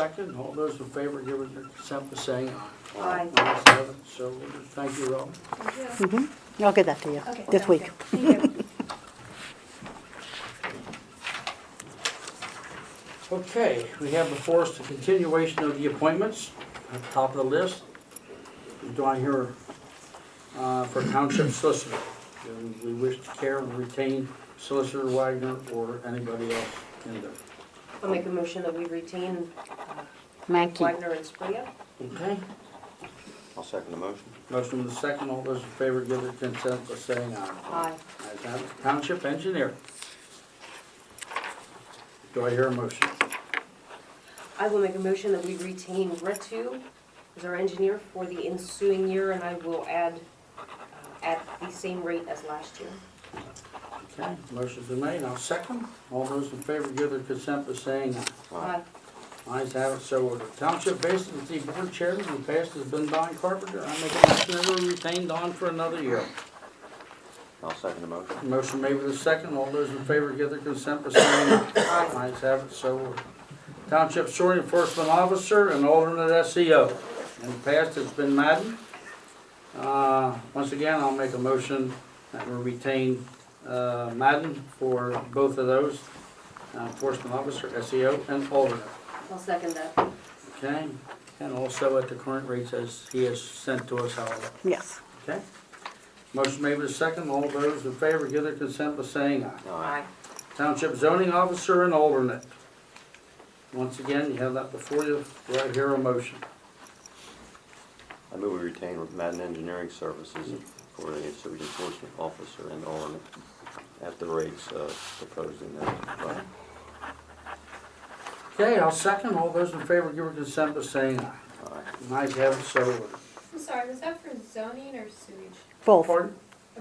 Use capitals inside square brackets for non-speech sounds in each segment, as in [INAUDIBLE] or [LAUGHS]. Second, all those in favor give their consent by saying aye. Aye. Ayes have it, so ordered. Thank you, Robin. Thank you. I'll get that to you Okay, this sounds week. good. Thank you. Okay, we have before us the continuation of the appointments at the top of the list. Do I hear uh, for township solicitor? Do we wish to care and retain solicitor Wagner or anybody else in there? I'll make a motion that we retain uh, Mankey. Wagner and Spria. Okay, I'll second the motion. motion with a second. All those in favor give their consent by saying aye. Aye. Ayes have it. Township engineer. Do I hear a motion? I will make a motion that we retain Ritu as our engineer for the ensuing year, and I will add uh, at the same rate as last year. Okay, motion's been made, I'll second. All those in favor give their consent by saying aye. Aye. Ayes have it, so ordered. Township vacancy board chairman in the past has been Don Carpenter. I make a motion that we retain Don for another year. I'll second the motion. Motion made with a second, all those in favor give their consent by saying aye. Ayes have it, so ordered. Township shore enforcement officer and alternate SEO. In the past, it's been Madden. Uh, Once again, I'll make a motion that we retain uh, Madden for both of those, uh, enforcement officer, SEO, and alternate. I'll second that. Okay, and also at the current rates as he has sent to us, however, Yes. okay? Motion made with a second, all those in favor give their consent by saying aye. Aye. Township zoning officer and alternate. Once again, you have that before you, do I hear a motion? I move we retain Madden Engineering Services for a city enforcement officer and alternate at the rates uh, proposed in that. Okay, I'll second, all those in favor give their consent by saying aye. Aye. Ayes have it, so ordered. I'm sorry, was that for zoning or sewage? Both, Pardon?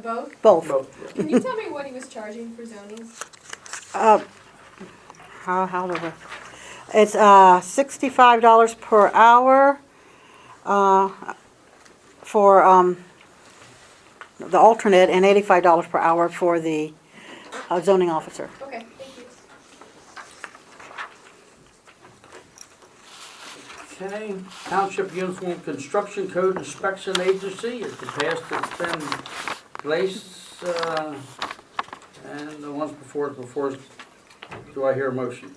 Both? both. Vote. Can you tell me what he was charging for zoning? Uh, How, how do we, it's uh, sixty-five dollars per hour uh, for um, the alternate and eighty-five dollars per hour for the uh, zoning officer. Okay, thank you. Okay, Township Uniform Construction Code Inspection Agency, it's the past it's been placed, uh, and the ones before it, before, it. do I hear a motion?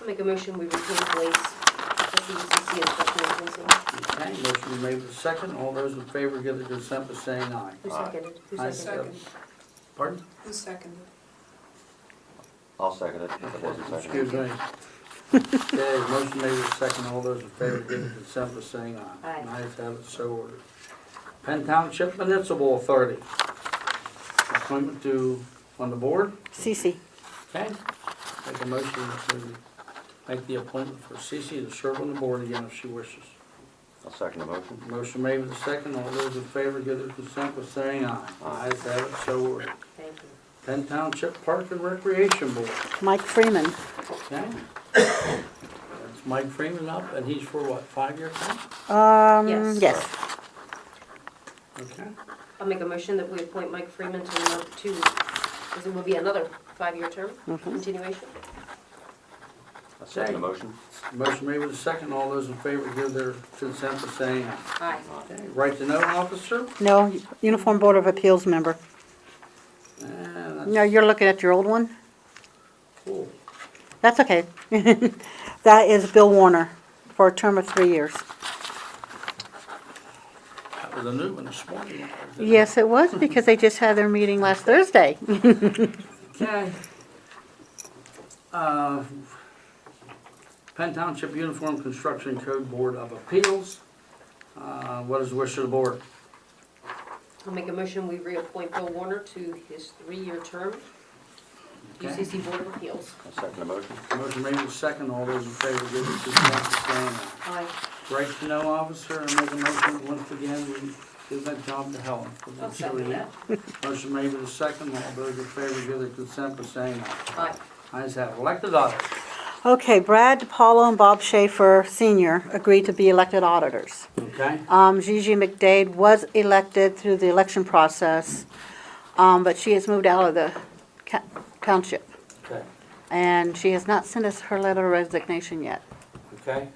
I'll make a motion we retain Blaze as the UCC inspection Okay, agency. motion made with a second, all those in favor give their consent by saying aye. Who Aye. seconded? Aye. Who seconded? Pardon? Who seconded? I'll second it if it wasn't Excuse me. seconded. Okay, motion made with a second, all those in favor give their consent by saying aye. Aye. Ayes have it, so ordered. Penn Township Municipal Authority, appointment to, on the board? Cece, Okay, make a motion to make the appointment for Cece to serve on the board again if she wishes. I'll second the motion. Motion made with a second, all those in favor give their consent by saying aye. Aye. Ayes have it, so ordered. Thank you. Penn Township Park and Recreation Board, Mike Freeman, okay? That's Mike Freeman up, and he's for what, five-year term? um, Yes. yes. Okay, I'll make a motion that we appoint Mike Freeman to, another- to, because it will be another five-year term continuation. I'll second the motion. motion made with a second, all those in favor give their consent by saying aye. Aye. Okay, right to know officer, No, Uniform Board of Appeals member. and that's No, you're looking at your old one? cool. That's okay. [LAUGHS] That is Bill Warner for a term of three years. That was a new one this morning. Yes, it was because they just had their meeting last Thursday. Okay. Uh, Penn Township Uniform Construction Code Board of Appeals. Uh, What is the wish of the board? I'll make a motion, we reappoint Bill Warner to his three-year term, Okay. UCC Board of Appeals. I'll second the motion. Motion made with second, all those in favor give their consent by saying aye. Aye. Right to know officer, I make a motion once again, we give that job to Helen. I'll second that. Motion made with second, all those in favor give their consent by saying aye. Aye. Ayes have it. elected auditor. [LAUGHS] Okay, Brad DiPaolo and Bob Schaefer Senior agreed to be elected auditors. Okay, Um, Gigi McDade was elected through the election process, um, but she has moved out of the ca- township. okay, And she has not sent us her letter of resignation yet. okay?